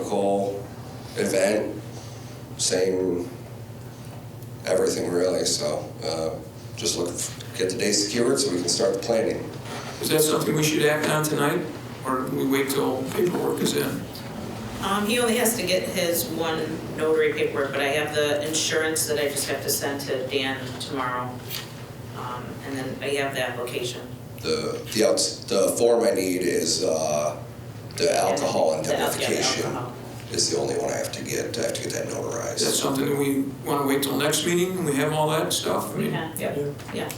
typical event, same everything really. So uh, just look, get the day secured so we can start the planning. Is that something we should act on tonight, or we wait till paperwork is in? Um, he only has to get his one notary paperwork, but I have the insurance that I just have to send to Dan tomorrow. Um, and then I have the application. The the outs, the form I need is uh, the alcohol The- yeah, the identification alcohol. is the only one I have to get. I have to get that Is that notarized. something that we want to wait till next meeting, and we have all that stuff? I mean, Yeah, yep, yeah.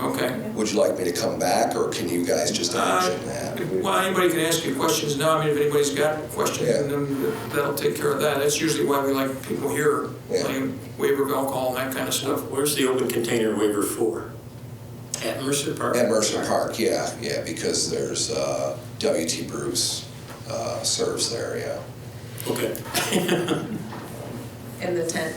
Okay. Would you like me to come back, or can you guys just Uh, imagine that? Well, anybody can ask you questions now, I mean, if anybody's got questions, Yeah. then that'll take care of that. That's usually why we like people here, Yeah. like waiver of alcohol and that kind of stuff. Where's the open container waiver for? At Mercer Park? At Mercer Park, yeah, yeah, because there's uh, WT Bruce uh, serves there, yeah. Okay. In the tent,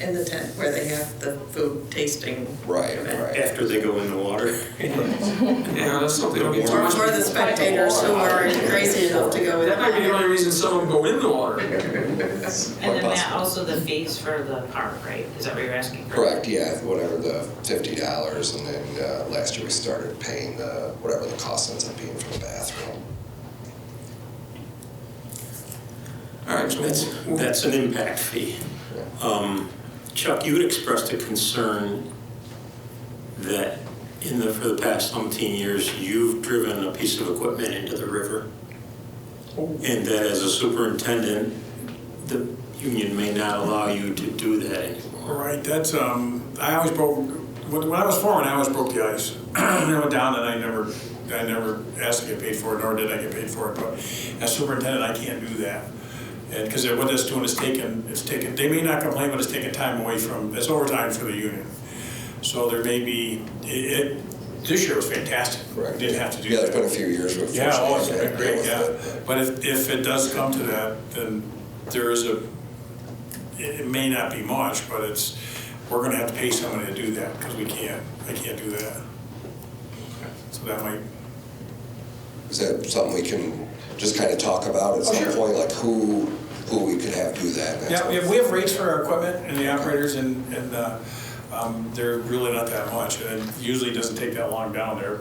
in the tent where they have the food tasting. Right, event. right. After they go in the water? Yeah, that's something that'll be too Or much. for the spectators who are crazy enough to go in. That might be the only reason some of them go in the water. And then that possible. also the fees for the park, right? Is that what you're asking for? Correct, yeah, whatever the fifty dollars, and then uh, last year we started paying the, whatever the cost ends up being for the bathroom. All right, so That's, we'll- that's an impact fee. Um, Chuck, you had expressed a concern that in the, for the past umpteen years, you've driven a piece of equipment into the river. Oh. And that as a superintendent, the union may not allow you to do that anymore. All right, that's, um, I always broke, when, when I was foreman, I always broke the ice. I went down and I never, I never asked to get paid for it, nor did I get paid for it, but as superintendent, I can't do that. And, because what that's doing is taking, it's taking, they may not complain, but it's taking time away from, it's overtime for the union. So there may be, it, it, this year was fantastic. Correct. Didn't have to do that. Yeah, there's been a few years where. Yeah, oh, it's unfortunately, been I great, haven't dealt yeah. with it, But if, if it does come to that, then there is a, it, it may not be much, but it's, we're gonna have to pay somebody to do that, because we can't, I can't do that. So that might, but Is that something we can just kind of talk about Oh, at some point, like who, who we could have do that? and that yeah, sort we of have, we have rates for our equipment and the operators, and, and, uh, um, they're really not that much, and it usually doesn't take that long down there, Right,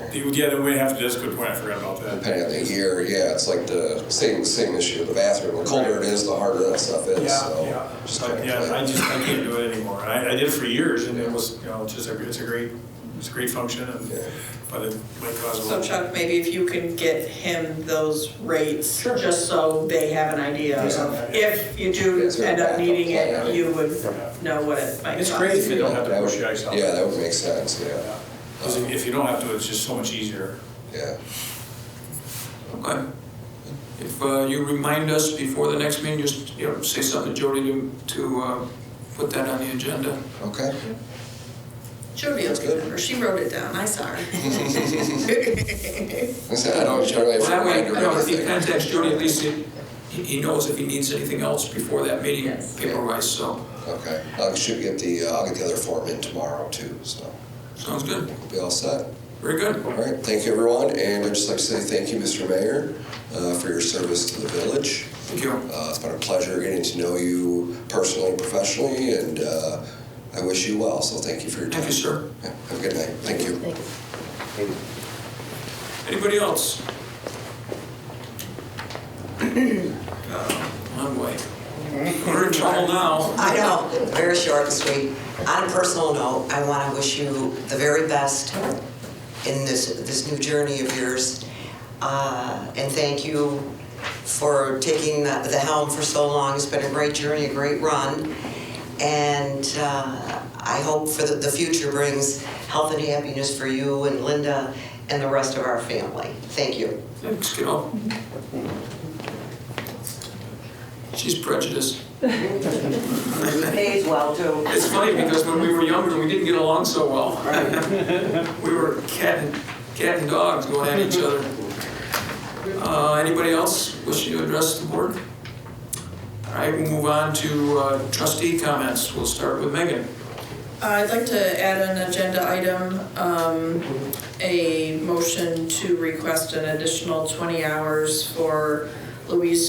but, right. yeah, then we have to, that's a good point, I forgot about that. Depending on the year, yeah, it's like the same, same issue, the bathroom, the colder it is, the harder that stuff is, so. Yeah, just yeah, kinda But, yeah, I plan. just, I can't do it anymore. I, I did it for years and it was, you know, it's just, a- it's a great, it's a great function and, Yeah. but it might cause a So little. Chuck, maybe if you can get him those rates, just so they have an idea of, if you do Is there a end up backup needing plan? it, you would know what it might It's cost. great if you don't have to That would- push the ice out. Yeah, that would make sense, yeah, Because if if you don't have to, it's just so much easier. yeah. Okay. If uh, you remind us before the next meeting, just, you know, say something to Jody to, to uh, put that on the agenda. Okay, Jody will remember, she wrote it down, I saw her. I said, I don't generally have to That way, remind you her know, if he everything. contacts Jody, at least he, he knows if he needs anything else before that meeting, Yes. paper-wise, so, Okay, I should get the, uh, I'll get the other form in tomorrow too, so sounds good. we'll be all set. Very good. All right, thank you everyone, and I'd just like to say thank you, Mr. Mayor, uh, for your service to the village. Thank you. Uh, It's been a pleasure getting to know you personally and professionally, and uh, I wish you well, so thank you for your time. Thank you, sir. Yeah, Have a good night, thank you. Anybody else? Uh, One way. We're in trouble now. I know, very short and sweet. On a personal note, I want to wish you the very best in this, this new journey of yours. Uh, And thank you for taking the the helm for so long. It's been a great journey, a great run. And uh, I hope for the, the future brings health and happiness for you and Linda and the rest of our family. Thank you. Thanks, kiddo. She's prejudiced. Pays well, too. It's funny because when we were younger, we didn't get along so well. We were cat and, cat and dogs going at each other. Uh, Anybody else wishing to address the board? All right, we'll move on to uh, trustee comments. We'll start with Megan. Uh, I'd like to add an agenda item, um, a motion to request an additional 20 hours for Louise